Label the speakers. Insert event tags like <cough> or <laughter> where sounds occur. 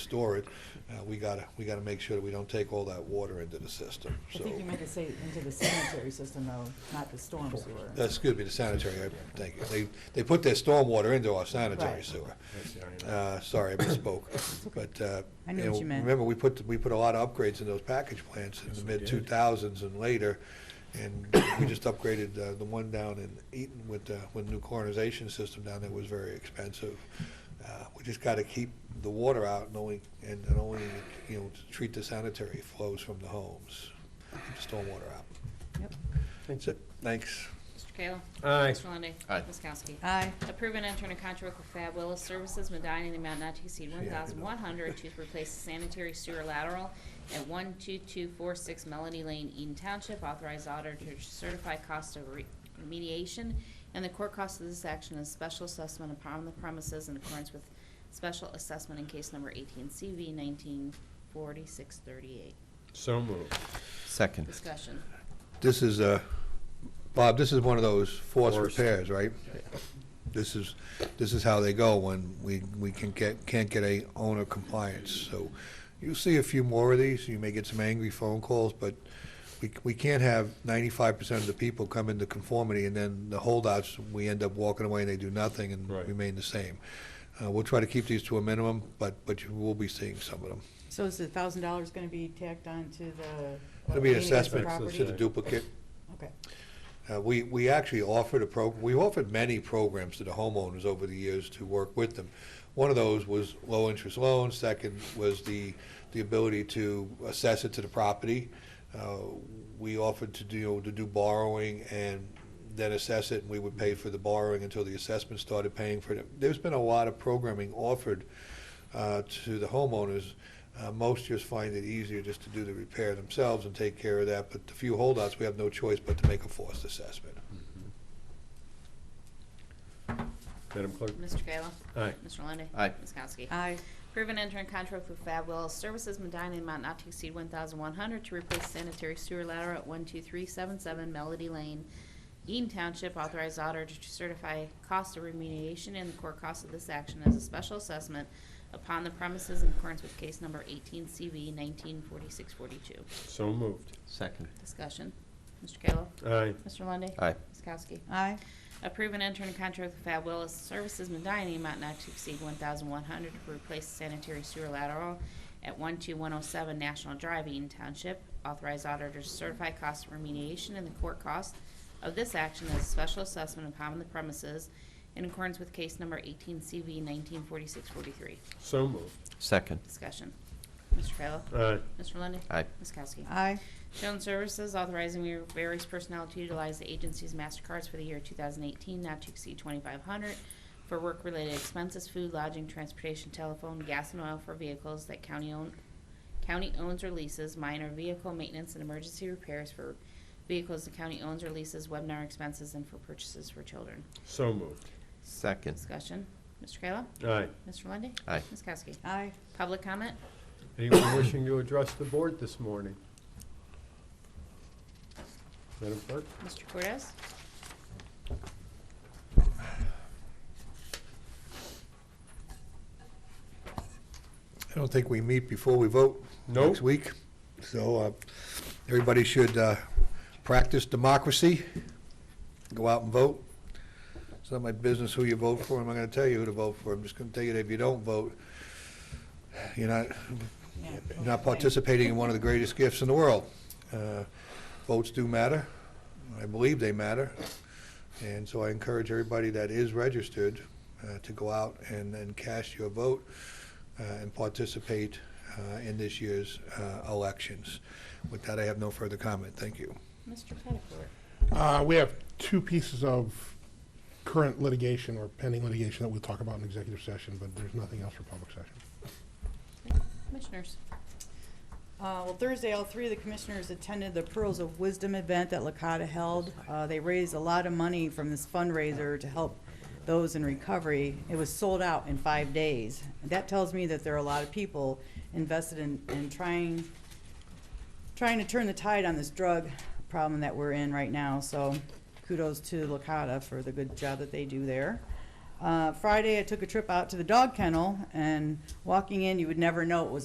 Speaker 1: store it, uh, we gotta, we gotta make sure that we don't take all that water into the system,
Speaker 2: I
Speaker 1: so.
Speaker 2: think you meant to say into the sanitary system though, not the storm sewer.
Speaker 1: Uh, Excuse me, the sanitary, I think, they, they put their stormwater into our sanitary
Speaker 2: Right.
Speaker 1: sewer.
Speaker 3: That's the irony.
Speaker 1: Uh, sorry, I
Speaker 2: <coughs>
Speaker 1: misspoke, but, uh.
Speaker 2: I knew what you meant.
Speaker 1: Remember, we put, we put a lot of upgrades in those package plants in
Speaker 3: Yes,
Speaker 1: the
Speaker 3: we did.
Speaker 1: mid-2000s and later, and we just upgraded uh, the one down in Eaton with, uh, with new coronization system down there was very expensive. Uh, We just gotta keep the water out and only, and and only, you know, treat the sanitary flows from the homes, keep the stormwater out.
Speaker 2: Yep.
Speaker 1: That's it, thanks.
Speaker 4: Mr. Kayla.
Speaker 3: Aye.
Speaker 4: Mr. Lundey.
Speaker 5: Aye.
Speaker 4: Ms. Kowski.
Speaker 2: Aye,
Speaker 4: Approve and enter into contract with Fab Willis Services Medina in the amount not to exceed one thousand one hundred to replace the sanitary sewer lateral at one two two four six Melody Lane, Eden Township. Authorized auditor to certify cost of re- remediation and the core cost of this action is special assessment upon the premises in accordance with special assessment in case number eighteen CV nineteen forty-six thirty-eight.
Speaker 3: So moved.
Speaker 5: Second.
Speaker 4: Discussion.
Speaker 1: This is, uh, Bob, this is one of those forced
Speaker 3: Forced.
Speaker 1: repairs, right? This is, this is how they go when we, we can get, can't get a owner compliance. So you'll see a few more of these, you may get some angry phone calls, but we, we can't have ninety-five percent of the people come into conformity and then the holdouts, we end up walking away and they do nothing and
Speaker 3: Right.
Speaker 1: remain the same. Uh, We'll try to keep these to a minimum, but, but you will be seeing some of them.
Speaker 2: so is the thousand dollars gonna be tacked on to the?
Speaker 1: It'll be an
Speaker 2: remaining of the
Speaker 1: assessment
Speaker 2: property?
Speaker 1: to the duplicate.
Speaker 2: Okay,
Speaker 1: Uh, We, we actually offered a program, we offered many programs to the homeowners over the years to work with them. One of those was low-interest loans, second was the, the ability to assess it to the property. Uh, We offered to do, to do borrowing and then assess it, and we would pay for the borrowing until the assessment started paying for it. There's been a lot of programming offered uh, to the homeowners. Uh, Most just find it easier just to do the repair themselves and take care of that, but the few holdouts, we have no choice but to make a forced assessment.
Speaker 3: Madam Clerk?
Speaker 4: Mr. Kayla.
Speaker 3: Aye.
Speaker 4: Mr. Lundey.
Speaker 5: Aye.
Speaker 4: Ms. Kowski.
Speaker 2: aye,
Speaker 4: Approve and enter in contract with Fab Wells Services Medina in amount not to exceed one thousand one hundred to replace sanitary sewer lateral at one two three seven seven Melody Lane, Eaton Township. Authorized auditor to certify cost of remediation and the core cost of this action as a special assessment upon the premises in accordance with case number eighteen CV nineteen forty-six forty-two.
Speaker 3: So moved.
Speaker 5: Second.
Speaker 4: Discussion. Mr. Kayla.
Speaker 3: Aye.
Speaker 4: Mr. Lundey.
Speaker 5: Aye.
Speaker 4: Ms. Kowski.
Speaker 2: aye,
Speaker 4: Approve and enter in contract with Fab Willis Services Medina, in the amount not to exceed one thousand one hundred to replace sanitary sewer lateral at one two one oh seven National Drive, Eaton Township. Authorized auditor to certify cost of remediation and the court cost of this action as a special assessment upon the premises in accordance with case number eighteen CV nineteen forty-six forty-three.
Speaker 3: So moved.
Speaker 5: Second.
Speaker 4: Discussion. Mr. Kayla.
Speaker 3: Aye.
Speaker 4: Mr. Lundey.
Speaker 5: Aye.
Speaker 4: Ms. Kowski.
Speaker 2: aye,
Speaker 4: Shown Services authorizing various personnel to utilize the agency's MasterCards for the year 2018, not to exceed 2,500, for work-related expenses, food, lodging, transportation, telephone, gas and oil for vehicles that county own, county owns or leases, minor vehicle maintenance and emergency repairs for vehicles the county owns or leases, webinar expenses, and for purchases for children.
Speaker 3: So moved.
Speaker 5: Second.
Speaker 4: Discussion. Mr. Kayla?
Speaker 3: Aye.
Speaker 4: Mr. Lundy.
Speaker 5: Aye.
Speaker 4: Ms. Kowski?
Speaker 2: aye.
Speaker 4: Public comment?
Speaker 3: Anyone wishing to address the board this morning? Madam Clerk?
Speaker 4: Mr. Cortez?
Speaker 1: I don't think we meet before we vote
Speaker 3: Nope.
Speaker 1: next week. So uh, everybody should uh, practice democracy, go out and vote. It's not my business who you vote for, I'm not going to tell you who to vote for. I'm just going to tell you that if you don't vote, you're not,
Speaker 2: Yeah,
Speaker 1: you're
Speaker 2: okay.
Speaker 1: not participating in one of the greatest gifts in the world. Uh, Votes do matter. I believe they matter. And so I encourage everybody that is registered uh, to go out and and cast your vote uh, and participate uh, in this year's uh, elections. With that, I have no further comment. Thank you.
Speaker 4: Mr. Pettifer?
Speaker 6: Uh, We have two pieces of current litigation or pending litigation that we'll talk about in executive session, but there's nothing else for public session.
Speaker 4: Commissioners?
Speaker 2: Uh, Well, Thursday, all three of the commissioners attended the Pearls of Wisdom event that Lakota held. Uh, They raised a lot of money from this fundraiser to help those in recovery. It was sold out in five days. That tells me that there are a lot of people invested in, in trying, trying to turn the tide on this drug problem that we're in right now. So kudos to Lakota for the good job that they do there. Uh, Friday, I took a trip out to the dog kennel, and walking in, you would never know it was